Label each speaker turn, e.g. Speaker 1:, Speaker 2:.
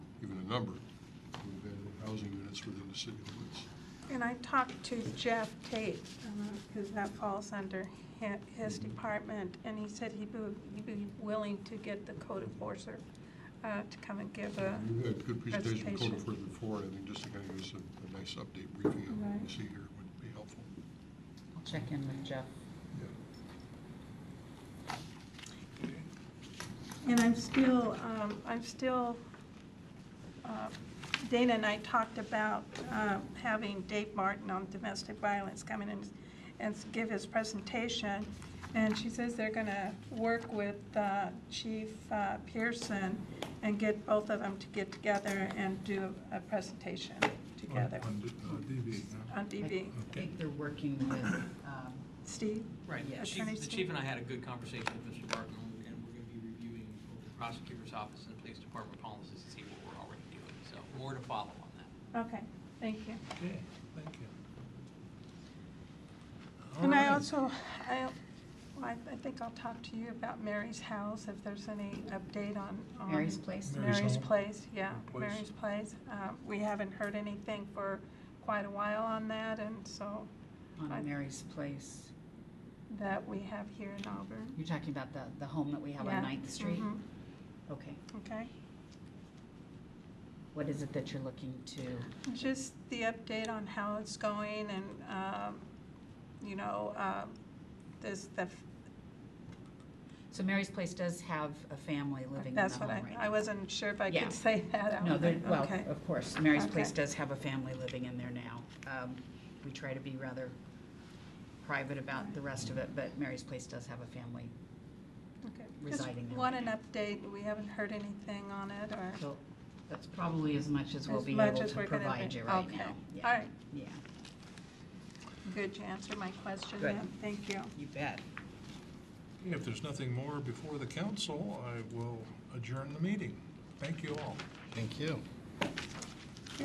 Speaker 1: number of available housing units within the city limits.
Speaker 2: And I talked to Jeff Tate, because that falls under hi- his department, and he said he'd be- he'd be willing to get the code enforcer uh, to come and give a,
Speaker 1: You had a good presentation from Code
Speaker 2: presentation.
Speaker 1: Enforcement before, and I think just to kind of give us a- a nice update briefing on what we
Speaker 2: Right.
Speaker 1: see here would be helpful.
Speaker 3: I'll check in with Jeff.
Speaker 1: Yeah.
Speaker 2: and I'm still, um, I'm still, uh, Dana and I talked about uh, having Dave Martin on domestic violence come in and, and give his presentation. And she says they're gonna work with uh, Chief uh, Pearson and get both of them to get together and do a presentation together
Speaker 4: uh,
Speaker 2: on DV.
Speaker 3: I think they're working with, um,
Speaker 2: Steve?
Speaker 5: Right, the chief,
Speaker 2: Attorney
Speaker 5: the
Speaker 2: Steve?
Speaker 5: chief and I had a good conversation with Mr. Barton, and we're gonna be reviewing both the prosecutor's office and the police department policies to see what we're already doing, so more to follow on that.
Speaker 2: Okay, thank you.
Speaker 4: Okay, thank you.
Speaker 2: And I
Speaker 4: Alright.
Speaker 2: also, I, I I think I'll talk to you about Mary's house, if there's any update on. on-
Speaker 3: Mary's Place.
Speaker 4: Mary's
Speaker 2: Um, Mary's
Speaker 4: home.
Speaker 2: Place, yeah,
Speaker 4: Place.
Speaker 2: Mary's Place. Um, We haven't heard anything for quite a while on that, and so
Speaker 3: on Mary's Place.
Speaker 2: that we have here in Auburn.
Speaker 3: You're talking about the, the home that we have on
Speaker 2: Yeah,
Speaker 3: Ninth Street?
Speaker 2: mhm,
Speaker 3: Okay.
Speaker 2: Okay,
Speaker 3: What is it that you're looking to?
Speaker 2: just the update on how it's going and, um, you know, um, this, the
Speaker 3: So Mary's Place does have a family living in the
Speaker 2: That's
Speaker 3: home
Speaker 2: what I,
Speaker 3: right now.
Speaker 2: I wasn't sure if I
Speaker 3: Yeah.
Speaker 2: could say that out
Speaker 3: No,
Speaker 2: loud.
Speaker 3: there, well,
Speaker 2: Okay.
Speaker 3: of course, Mary's Place
Speaker 2: Okay.
Speaker 3: does have a family living in there now. Um, We try to be rather private about the rest of it, but Mary's Place does have a family.
Speaker 2: Okay.
Speaker 3: residing
Speaker 2: Just
Speaker 3: there
Speaker 2: want
Speaker 3: right
Speaker 2: an update, we haven't heard anything on it, or
Speaker 3: So that's probably as much as we'll
Speaker 2: as
Speaker 3: be
Speaker 2: much
Speaker 3: able
Speaker 2: as
Speaker 3: to
Speaker 2: we're gonna.
Speaker 3: provide
Speaker 2: be-
Speaker 3: you right
Speaker 2: okay.
Speaker 3: now. Yeah.
Speaker 2: All right,
Speaker 3: Yeah,
Speaker 2: good, you answered my question
Speaker 3: Good.
Speaker 2: then, thank you.
Speaker 3: you bet.
Speaker 4: If there's nothing more before the council, I will adjourn the meeting. Thank you all.
Speaker 6: Thank you.